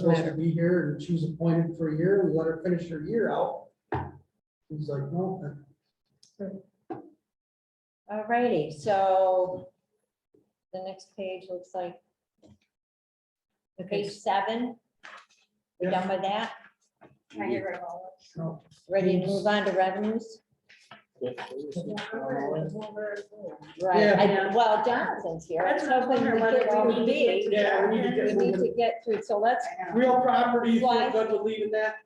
supposed to be here and she was appointed for a year, we let her finish her year out. He's like, no, that- Alrighty, so the next page looks like page seven. We're done with that. no. Ready to move on to revenues? Right, Yeah. I- well, Jonathan's here. I was That's what I'm hoping we wondering, could whether we all need to be. get Yeah, we need to We get need moving. to get through, so let's, Real property, Why? we're good with leaving that.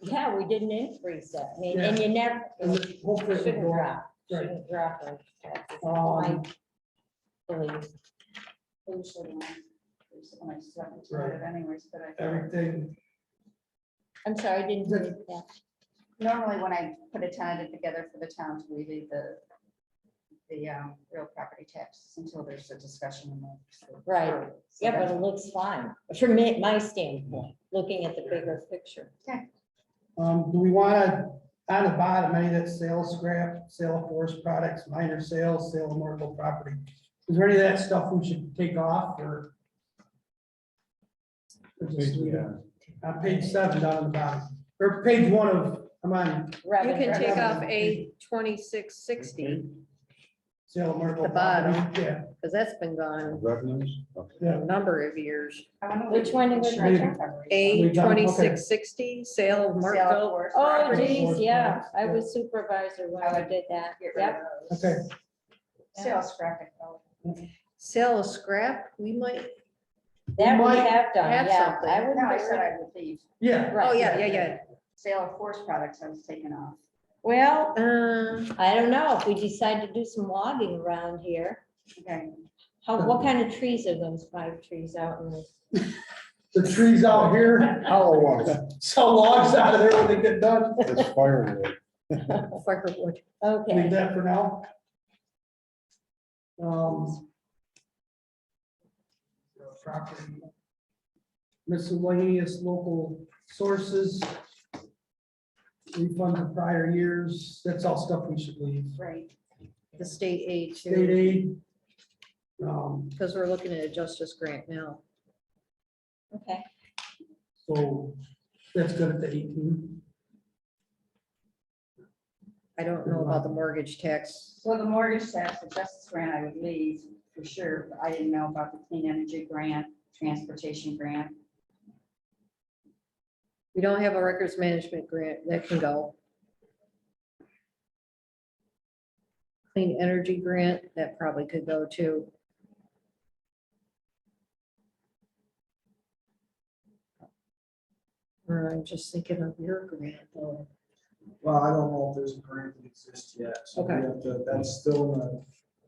yeah, we didn't increase it, I mean, and you never, And it hopefully it'll shouldn't go up. drop, shouldn't drop. like that. It's my Um, belief. Right. Everything, I'm sorry, I didn't hear that. Normally, when I put a tentative together for the towns, we leave the, the um, real property tax until there's a discussion. among- so- Right. so Yeah, but that's- it looks fine, from me, my standpoint, looking at the bigger picture. um, do we wanna, on the bottom, any of that sales scrap, sale of forest products, minor sales, sale of marketable property? Is there any of that stuff we should take off or? Or just leave it? On page seven down at the bottom, or page one of, I'm on You Revenue. can take off a twenty-six sixty, sale of marketable. The bottom. property. Yeah, because that's been gone Revenues? Okay. a number of years. I wonder Which what one was insurance that? coverage is. A We've done- okay. twenty-six sixty, sale Sale of Markville. of forest Oh property, geez, yeah, I was supervisor when I did that, get rid of yep. those. okay. Sales graphic. development. Sale of scrap, we might, That we might have done, have yeah, something. I would. No, I said remember. I would leave. Yeah, oh, Right. yeah, yeah, yeah. Sale of forest products, I was taken off. Well, Uh, I don't know, if we decide to do some logging around here, Okay. how, Hmm. what kind of trees are those five trees out in this? the trees out here, How long? sell logs out of there when they get done, It's firewood. firewood. leave Okay, that for now. Um. Property. Miscellaneous local sources. Refund of prior years, that's all stuff we should leave, Right. the state aid state too, aid. Um, because we're looking at a justice grant now. okay, so that's good at the eighteen, I don't know about the mortgage tax. Well, the mortgage tax, the justice grant, I would leave for sure. but I didn't know about the clean energy grant, transportation grant. We don't have a records management grant that can go. Clean energy grant, that probably could go too. Or I'm just thinking of your grant though. Well, I don't know if there's a grant that exists yet, so we Okay. have to, that's still in the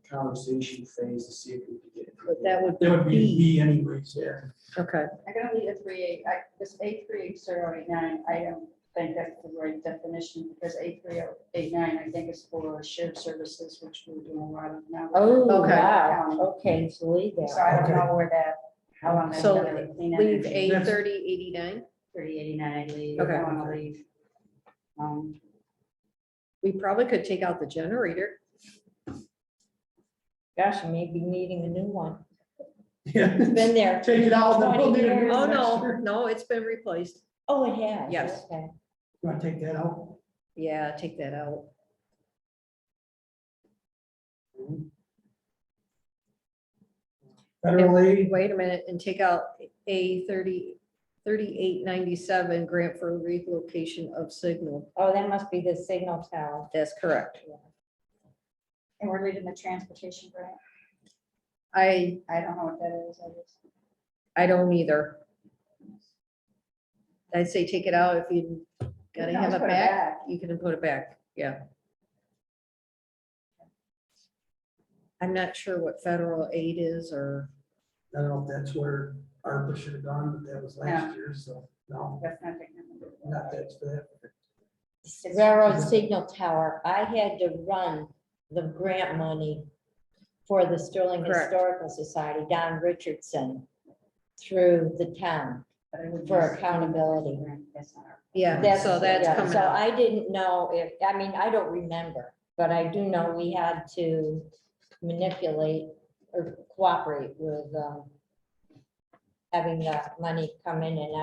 conversation phase to see if we can get. it. But that would that would be be, B anyways, yeah. okay, I'm gonna leave the three eight, I, this eight three eight zero eight nine, I don't think that's the right definition, because eight three oh eight nine, I think is for shared services, which we're doing a lot of now. oh, Okay. wow, okay, so leave So that. I don't know where that, how long that's So gonna be. Clean leave energy, eight thirty eighty-nine. three eighty-nine, I leave, Okay. I wanna leave. Um, We probably could take out the generator. Gosh, I may be needing a new one, Yeah. it's been there. Take it out. then we'll need a new Oh, one next no, year. no, it's been replaced. Oh, it has? Yes. Okay. You wanna take that out? Yeah, take that out. Federal aid, Wait a minute and take out A thirty, thirty-eight ninety-seven grant for relocation of signal. Oh, that must be the signal tower. That's correct. and we're leaving the transportation grant, I, I don't know what that is, I just. I don't either. I'd say take it out if you gotta You can have always it put back. You can put it back, yeah. I'm not sure what federal aid is or, I don't know if that's where ARPA should have gone, but that was last year, so, no, That's not taking it. not that's bad. Railroad signal tower, I had to run the grant money for the Sterling Correct. Historical Society, Don Richardson, through the town. But I would For just- accountability. That's not our- yeah, so that's yeah, coming So up. I didn't know if, I mean, I don't remember, but I do know we had to manipulate or cooperate with um, having the money come in and out.